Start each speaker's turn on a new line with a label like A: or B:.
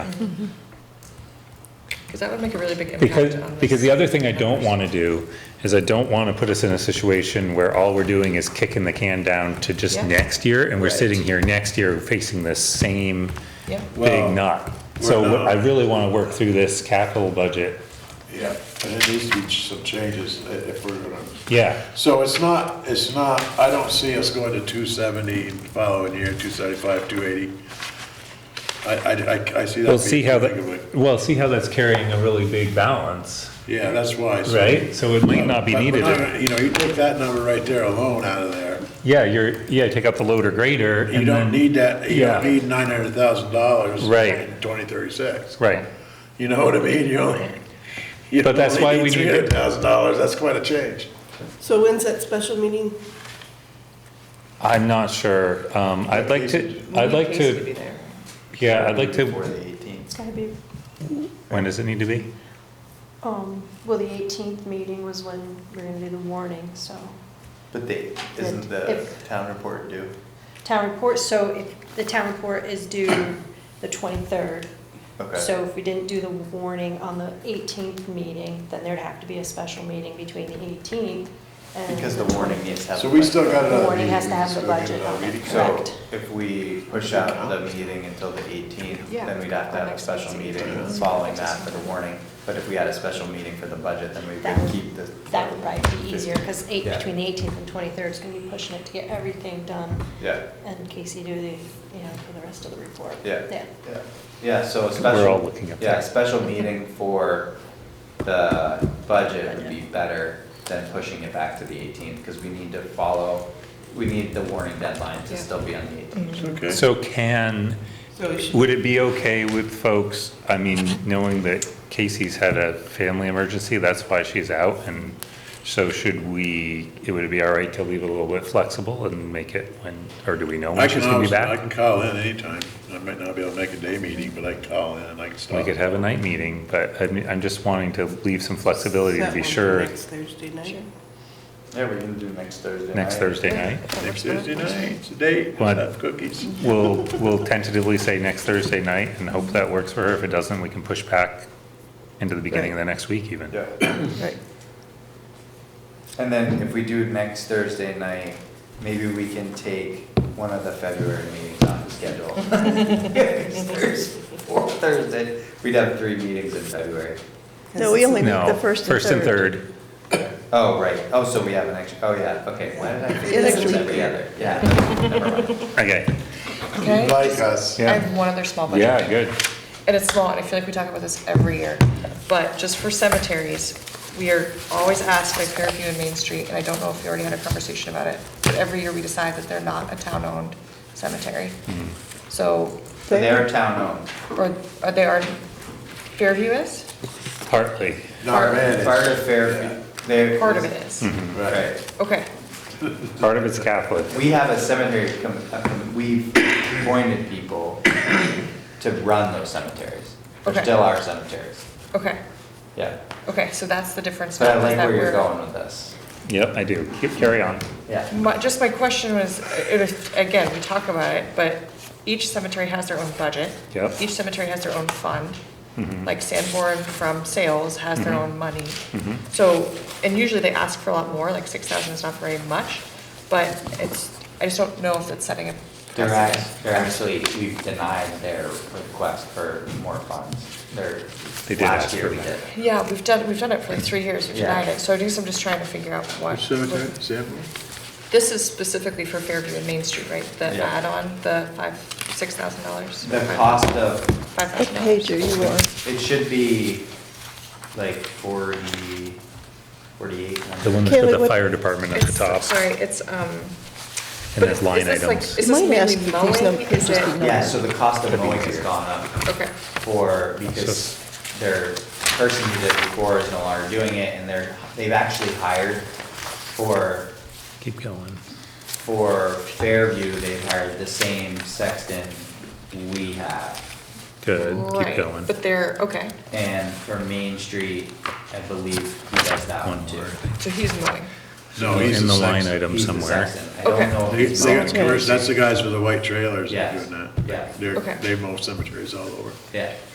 A: Because that would make a really big impact on
B: Because,
A: this.
B: because the other thing I don't want to do is I don't want to put us in a situation where all we're doing is kicking the can down to just
A: Yeah.
B: next year, and we're
A: Right.
B: sitting here next year facing the same
A: Yeah.
B: big
C: Well,
B: knot. So
C: we're
B: what- I
C: not.
B: really want to work through this capital budget,
C: Yeah, and it needs to be some changes i- if we're gonna,
B: yeah,
C: so it's not, it's not, I don't see us going to two seventy following year, two seventy-five, two eighty. I, I, I- I see that.
B: we'll see
C: being
B: how
C: too big of
B: that, well, see how that's carrying a really big balance,
C: a- Yeah, that's why. so-
B: right? So it might not be
C: But we're
B: needed.
C: not gonna- You know, you take that number right there alone out of there,
B: Yeah, you're, yeah, take out the loader grader
C: you
B: and
C: don't
B: then,
C: need that, you don't
B: Yeah.
C: need nine hundred thousand dollars.
B: Right.
C: In twenty thirty-six.
B: right.
C: You know what I mean? You only. you
B: But that's
C: only
B: why we need to-
C: Three hundred thousand dollars, that's quite a change.
D: So when's that special meeting?
B: I'm not sure. Um, I'd like to, I'd like
A: Casey be
B: to,
A: there.
B: yeah, I'd like
E: Before
B: to,
E: the eighteenth.
F: It's gotta be,
B: when does it need to be?
F: um, well, the eighteenth meeting was when we're gonna do the warning, so.
E: But they, isn't the
F: If-
E: town report due?
F: Town report, so if, the town report is due the twenty-third.
E: Okay.
F: So if we didn't do the warning on the eighteenth meeting, then there'd have to be a special meeting between the eighteenth and.
E: Because the warning needs to have.
C: So
E: the
C: we
E: budget.
C: still got
F: The
C: another
F: warning
C: meeting.
F: has to have the
C: so we got
F: budget
C: another
F: on it.
C: meeting.
E: So
F: Correct.
E: if we push out the meeting until the eighteenth,
A: Yeah.
E: then we'd have to have a
A: Next
E: special
A: meeting.
E: meeting
A: Yeah.
E: following that for the warning. But if we had a special meeting for the budget, then we
F: That
E: would
F: would-
E: keep the.
F: That would probably be easier, because eight,
E: Yeah.
F: between the eighteenth and twenty-third is gonna be pushing it to get everything done.
E: Yeah.
F: And Casey do the, you know, for the rest of the report.
E: Yeah.
F: Yeah.
E: Yeah. Yeah, so a
B: We're all
E: special,
B: looking up
E: yeah,
B: there.
E: a special meeting for the budget would be better than pushing it back to the eighteenth, because we need to follow, we need the warning deadline to
A: Yeah.
E: still be on the eighteenth.
C: Okay.
B: So can, would it be okay with folks, I mean, knowing that Casey's had a family emergency, that's why she's out, and so should we, it would be all right to leave it a little bit flexible and make it when, or do we know
C: I
B: when she's gonna
C: can
B: be
C: always, I
B: back?
C: can call in anytime. I might not be able to make a day meeting, but I can call in and I can stop.
B: We could have a night meeting, but I mean, I'm just wanting to leave some flexibility to
D: That
B: be
D: one for
B: sure
D: Next Thursday night?
E: Yeah, we're gonna do next Thursday.
B: next
E: night.
B: Thursday night.
C: Next Thursday night, it's a date,
B: What?
C: we'll have cookies.
B: We'll, we'll tentatively say next Thursday night and hope that works for her. If it doesn't, we can push back into the beginning of the next week even.
E: Yeah.
D: Right.
E: And then if we do it next Thursday night, maybe we can take one of the February meetings off the schedule. Thursday, Or Thursday, we'd have three meetings in February.
D: No, we only
B: No,
D: meet the first and third.
E: Oh, right, oh, so we have an extra, oh, yeah, okay, why did I
D: An
E: think
D: extra
E: this was
D: week.
E: every other? Yeah, never mind.
B: Okay.
A: Okay.
C: Like us.
A: I have one other small budget.
B: Yeah, good.
A: and it's small, and I feel like we talk about this every year, but just for cemeteries, we are always asked by Fairview and Main Street, and I don't know if we already had a conversation about it, but every year we decide that they're not a town-owned cemetery.
B: Mm-hmm.
A: So,
E: So they're town
A: or, or they are, Fairview is?
B: Partly.
C: Not
E: owned. Part
C: managed.
E: of Fairfield, they're.
A: Part of it is.
C: Right.
E: Right.
A: Okay,
B: Mm-hmm. Part of it's Catholic.
E: We have a cemetery, com- uh, com- we've appointed people to run those cemeteries.
A: Okay.
E: They're still our cemeteries,
A: okay,
E: yeah.
A: okay, so that's the difference.
E: But I
A: now, is
E: like
A: that
E: where you're
A: we're-
E: going with this.
B: Yep, I do. Keep- Carry on.
E: Yeah.
A: My, just my question was, it was, again, we talk about it, but each cemetery has their own budget.
B: Yep.
A: Each cemetery has their own fund.
B: Mhm.
A: Like Sanborn from sales has their own money.
B: Mhm.
A: So, and usually they ask for a lot more, like six thousand is not very much, but it's, I just don't know if it's setting a
E: They're
A: precedent.
E: act- they're actually, we've denied their request for more funds. They're,
B: They did ask
E: last
B: for
E: year we
B: that.
E: did.
A: Yeah, we've done, we've done it for like three years, we've
E: Yeah.
A: denied it, so I guess I'm just trying to figure out what.
C: Which cemetery, Sanborn?
A: This is specifically for Fairview and Main Street, right? The
E: Yeah.
A: add-on, the five, six thousand dollars?
E: The cost of,
A: Five
D: What
A: thousand dollars.
D: page are you on?
E: it should be like forty, forty-eight hundred.
B: The one that's with
D: Kaylee,
B: the
D: what-
B: fire department at the
A: It's-
B: top
A: Sorry, it's, um.
B: and
A: but
B: there's
A: is
B: line
A: this like-
B: items.
A: Is
D: Might
A: this
D: ask if
A: mainly
D: these
A: mowing?
D: numbers
A: Is
D: just
A: it,
D: be-
E: Yeah, so the cost of
B: Could be
E: mowing has
B: easier.
E: gone up.
A: okay,
E: for, because their person who did it before is no longer doing it, and they're, they've actually hired for,
B: Keep going.
E: for Fairview, they've hired the same sexton we have.
B: Good. Keep
A: right,
B: going.
A: but they're, okay,
E: And for Main Street, I believe he does that
B: One
E: one too.
B: more.
A: so he's mowing.
C: No,
B: In
C: he's
B: the
C: the
B: line
C: sexton.
B: item
E: He's the
B: somewhere.
E: sexton. I don't
A: Okay.
E: know if
C: They-
E: he's
C: they got
E: mowing.
C: commercial- That's the guys with the white trailers that are
E: Yes,
C: doing that.
E: yeah.
C: They're,
A: Okay.
C: they mow cemeteries all over.
E: Yeah,